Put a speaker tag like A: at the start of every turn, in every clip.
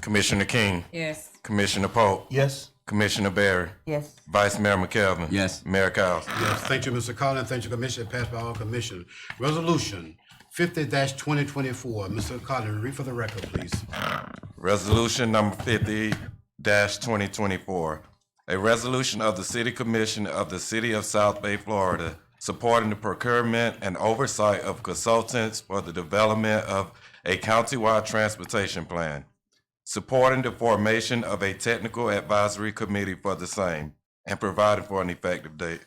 A: Commissioner King,
B: Yes.
A: Commissioner Polk,
C: Yes.
A: Commissioner Barry,
D: Yes.
A: Vice Mayor McKelvin.
E: Yes.
A: Mayor Cowes.
C: Yes, thank you, Mr. Collins, thank you, Commissioner, passed by all commissioners. Resolution fifty twenty twenty-four, Mr. Collins, read for the record, please.
A: Resolution number fifty twenty twenty-four. A resolution of the City Commission of the City of South Bay, Florida, supporting the procurement and oversight of consultants for the development of a countywide transportation plan, supporting the formation of a technical advisory committee for the same, and providing for an effective date.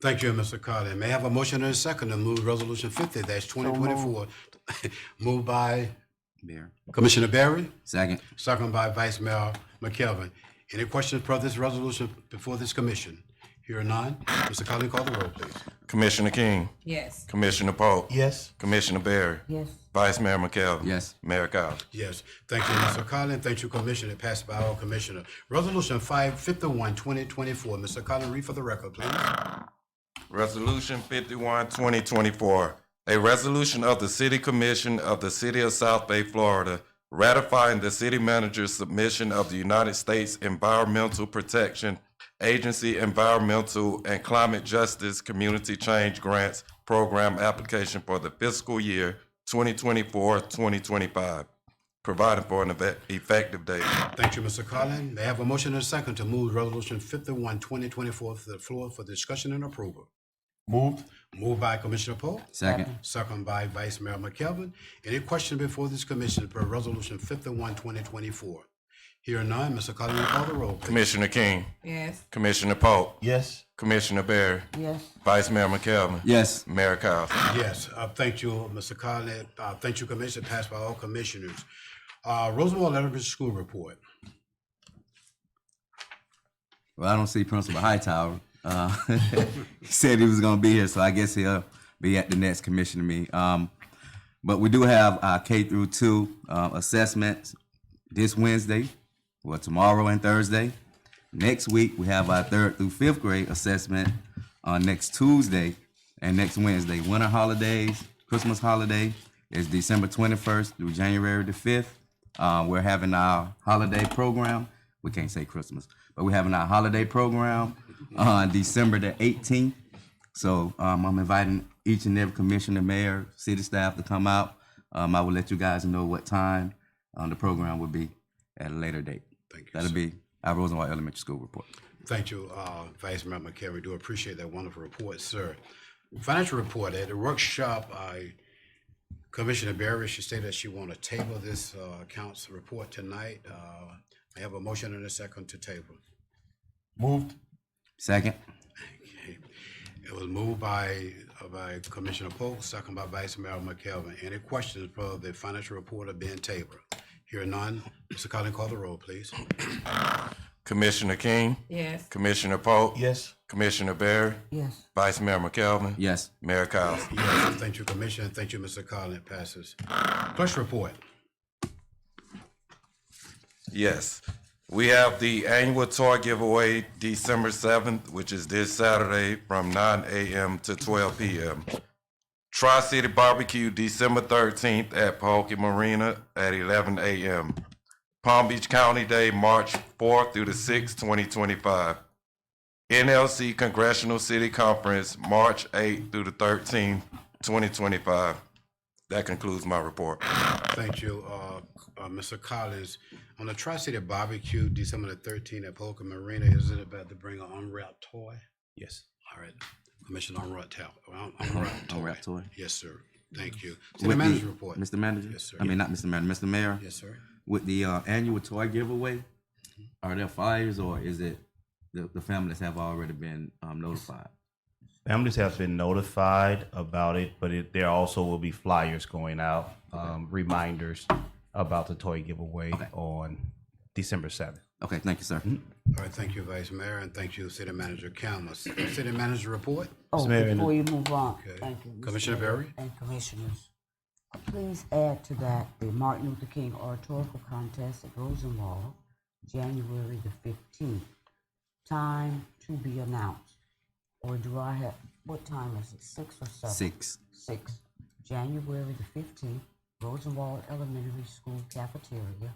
C: Thank you, Mr. Collins. May I have a motion and a second to move resolution fifty twenty twenty-four? Moved by
E: Mayor.
C: Commissioner Barry,
E: Second.
C: second by Vice Mayor McKelvin. Any questions for this resolution before this commission? Here or none? Mr. Collins, call the roll, please.
A: Commissioner King,
B: Yes.
A: Commissioner Polk.
C: Yes.
A: Commissioner Barry.
D: Yes.
A: Vice Mayor McKelvin.
E: Yes.
A: Mayor Cowes.
C: Yes, thank you, Mr. Collins. Thank you, Commissioner. Passed by all commissioner. Resolution 551, 2024. Mr. Collins, read for the record, please.
A: Resolution 51 2024, a resolution of the City Commission of the City of South Bay, Florida, ratifying the city manager's submission of the United States Environmental Protection Agency Environmental and Climate Justice Community Change Grants Program application for the fiscal year 2024-2025, providing for an eve- effective date.
C: Thank you, Mr. Collins. May I have a motion and a second to move Resolution 51, 2024 to the floor for discussion and approval?
F: Moved.
C: Moved by Commissioner Polk,
E: Second.
C: second by Vice Mayor McKelvin. Any question before this commission for Resolution 51, 2024? Here none, Mr. Collins, will you call the roll, please.
A: Commissioner King,
B: Yes.
A: Commissioner Polk,
F: Yes.
A: Commissioner Barry,
D: Yes.
A: Vice Mayor McKelvin.
E: Yes.
A: Mayor Cowes.
C: Yes, uh, thank you, Mr. Collins. Uh, thank you, Commissioner, passed by all commissioners. Uh, Roosevelt Elementary School Report.
E: Well, I don't see Principal Hightower. Uh, he said he was gonna be here, so I guess he'll be at the next commissioner meeting. Um, but we do have our K through two uh, assessments this Wednesday, well tomorrow and Thursday. Next week we have our third through fifth grade assessment on next Tuesday and next Wednesday. Winter holidays, Christmas holiday is December twenty first through January the fifth. Uh, we're having our holiday program. We can't say Christmas, but we're having our holiday program on December the eighteenth. So um, I'm inviting each and every commissioner, mayor, city staff to come out. Um, I will let you guys know what time um, the program will be at a later date.
C: Thank you,
E: That'll
C: sir.
E: be our Rosenwald Elementary School report.
C: Thank you, uh, Vice Mayor McCary. Do appreciate that wonderful report, sir. Financial report at the workshop, I, Commissioner Barry, she stated that she want to table this uh, accounts report tonight. Uh, I have a motion and a second to table.
F: Moved.
E: Second,
C: It was moved by, uh, by Commissioner Polk, second by Vice Mayor McKelvin. Any questions for the financial reporter being tabled? Hear none. Mr. Collins, call the roll, please.
A: Commissioner King,
B: Yes.
A: Commissioner Polk,
F: Yes.
A: Commissioner Barry,
D: Yes.
A: Vice Mayor McKelvin,
E: yes.
A: Mayor Cowes.
C: Yes, thank you, Commissioner. Thank you, Mr. Collins. Passes. Clerk's report.
A: Yes. We have the annual toy giveaway December seventh, which is this Saturday from nine AM to twelve PM. Tri-City Barbecue December thirteenth at Pahokee Marina at eleven AM. Palm Beach County Day, March fourth through the sixth, twenty twenty-five. NLC Congressional City Conference, March eighth through the thirteenth, twenty twenty-five. That concludes my report.
C: Thank you, uh, uh, Mr. Collins. On the Tri-City Barbecue, December the thirteenth at Polka Marina, is it about to bring an unwrapped toy?
E: Yes.
C: All right, Commissioner unwrapped toy, unwrapped toy.
E: Unwrapped toy.
C: Yes, sir. Thank you. City Manager report.
E: Mr. Manager?
C: Yes, sir.
E: I mean, not Mr. Manager, Mr. Mayor?
C: Yes, sir.
E: With the uh, annual toy giveaway, are there flyers or is it the, the families have already been um, notified?
F: Families have been notified about it, but it, there also will be flyers going out, um, reminders about the toy giveaway on December 7th.
E: Okay, thank you, sir.
C: All right, thank you, Vice Mayor, and thank you, City Manager Campbell. City Manager report?
D: Oh,
F: Mayor, in
D: before you move on,
C: Okay.
D: thank you. Mr.
C: Commissioner
D: Mayor
C: Berry?
D: And commissioners, please add to that the Martin Luther King Oratorical Contest at Rosenwall, January the fifteenth. Time to be announced. Or do I have, what time is it, six or seven?
E: Six.
D: Six, January the fifteenth, Rosenwald Elementary School Cafeteria,